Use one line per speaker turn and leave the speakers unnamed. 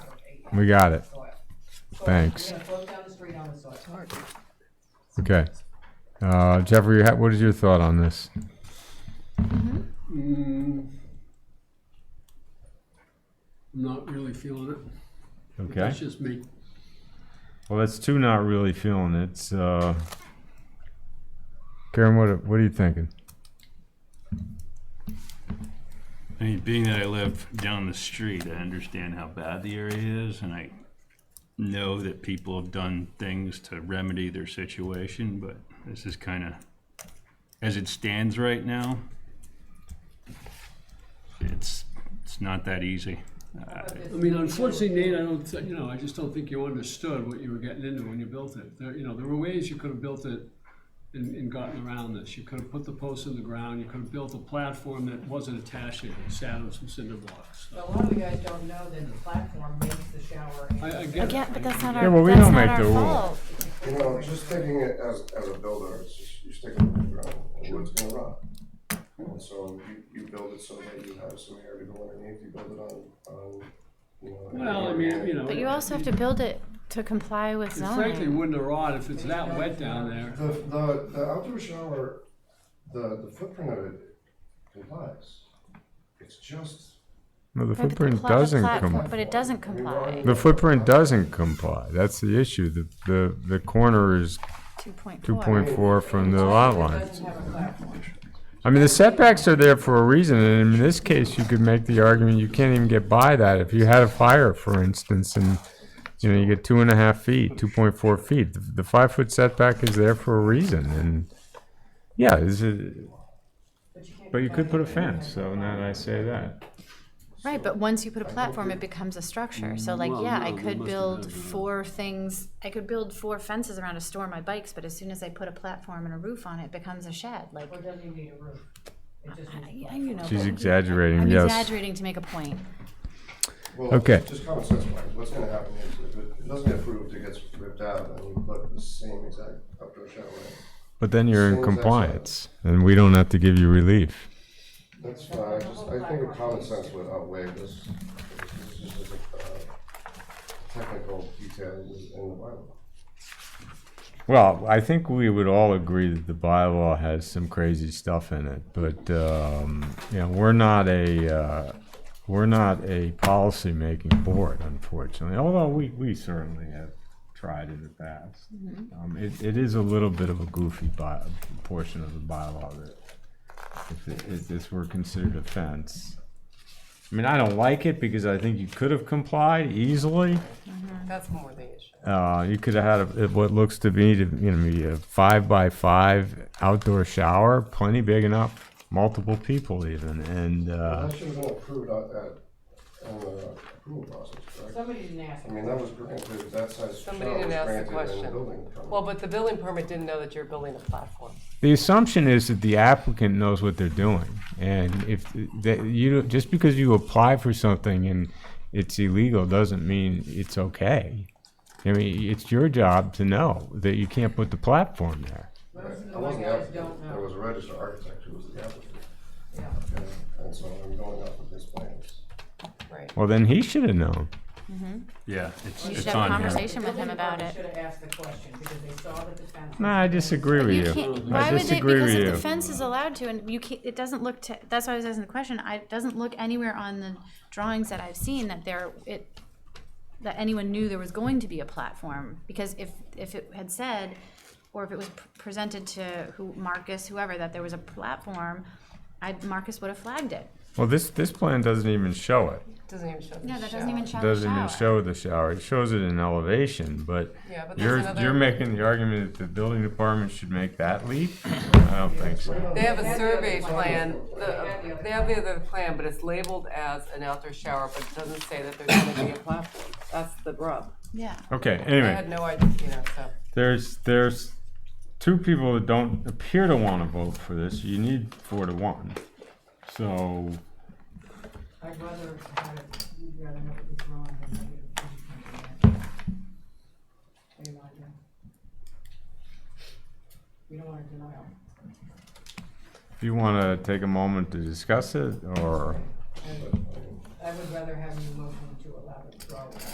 We got it.
soil.
Thanks.
We're gonna float down the street on the soil.
Okay. Uh, Jeffrey, you ha- what is your thought on this?
Mm. Not really feeling it.
Okay.
It's just me.
Well, that's two not really feeling it. It's, uh, Karen, what, what are you thinking?
I mean, being that I live down the street, I understand how bad the area is, and I know that people have done things to remedy their situation, but this is kind of, as it stands right now, it's, it's not that easy. Uh,
I mean, unfortunately, Nate, I don't, thi- you know, I just don't think you understood what you were getting into when you built it. There, you know, there were ways you could have built it and, and gotten around this. You could have put the posts in the ground, you could have built a platform that wasn't attached, it sat on some cinder blocks.
But a lot of you guys don't know that the platform makes the shower. and-
I, I get it.
Yeah, but that's not
Yeah,
our,
well, we
that's
don't
not
make
our
the rules.
fault.
You know, just taking it as, as a builder, it's just, you stick it in the ground, and wood's gonna rot. And so you, you build it so that you have some air to go underneath, you build it on, on, you know.
Well, I mean, you know.
But you also have to build it to comply with
It frankly
zoning.
wouldn't have rot if it's that wet down there.
The, the, the outdoor shower, the, the footprint of it complies. It's just.
No, the
Right, but the
footprint
pla- the
doesn't
platform-
comply.
But it doesn't
I mean, why-
comply.
The footprint doesn't comply. That's the issue. The, the, the corner is
Two point
two
four.
point four from the lot
It
line.
doesn't have a platform.
I mean, the setbacks are there for a reason, and in this case, you could make the argument you can't even get by that. If you had a fire, for instance, and, you know, you get two and a half feet, two point four feet, the, the five-foot setback is there for a reason, and, yeah, is it,
can't
but you
get
could
by
put a
it.
fence, so now that I say that.
Right, but once you put a platform, it becomes a structure. So like,
Well,
yeah, I
no, we
could
must have
build
done that.
four things, I could build four fences around to store my bikes, but as soon as I put a platform and a roof on it, it becomes a shed, like.
Or it doesn't even need a roof. It just needs a
I- I-
platform.
you know,
She's
but-
exaggerating,
I'm
yes.
exaggerating to make a point.
Well,
Okay.
Just common sense wise, what's gonna happen is if it it doesn't get approved, it gets ripped out and you put the same exact outdoor shower. in.
But then you're in
As soon as that's-
compliance, and we don't have to give you relief.
That's fine, I just, I think a common sense would outweigh this, this is just a, uh, technical detail in the in the bylaw.
Well, I think we would all agree that the bylaw has some crazy stuff in it, but, um, you know, we're not a, uh, we're not a policymaking board, unfortunately, although we, we certainly have tried in the past. Um, it, it is a little bit of a goofy by, portion of the bylaw that if, it- if this were considered offense. I mean, I don't like it because I think you could have complied easily.
That's more the issue.
Uh, you could have had a, what looks to be, to, you know, be a five by five outdoor shower, plenty big enough, multiple people even, and uh,
That should have been approved at, at, in the approval process, correct?
Somebody didn't ask.
I mean, that was granted, that size shower was
Somebody didn't ask the
granted in the
question.
building. permit.
Well, but the building permit didn't know that you're building a platform.
the assumption is that the applicant knows what they're doing, and if that you just because you apply for something and it's illegal doesn't mean it's okay. I mean, it's your job to know that you can't put the platform there.
Most of
I
the
wasn't the
guys don't
applicant, there was
know.
a registered architect who was the applicant,
Yeah.
and, and so I'm going off of his plans.
Right.
Well, then he should have known.
Yeah, it's,
You
it's
should have a
on him.
conversation with him about
They
it.
Should have asked the question because they saw that the fence.
No, I disagree with you.
can't-
I
Why would they,
disagree
because
with
if
you.
the fence is allowed to, and you can't, it doesn't look to, that's why I was asking the question, I, it doesn't look anywhere on the drawings that I've seen that there, it, that anyone knew there was going to be a platform, because if, if it had said, or if it was pr- presented to who, Marcus, whoever, that there was a platform, I, Marcus would have flagged it.
Well, this this plan doesn't even show it.
Doesn't even show the
No, that doesn't even show the
doesn't even
shower.
show the shower. It shows it in elevation, but
Yeah, but there's
you're,
another-
you're making the argument that the building department should make that leap? I don't think so.
They have a survey plan, the- they have the other plan, but it's labeled as an outdoor shower, but it doesn't say that there's gonna be a platform. That's the rub.
Yeah.
Okay,
I
anyway,
had no idea, you know, so.
there's, there's two people that don't appear to want to vote for this. You need four to one. So,
I'd rather have it, you'd rather have it withdrawn than have it approved. What do you want to do? We don't want a denial.
if you want to take a moment to discuss it, or,
I would rather have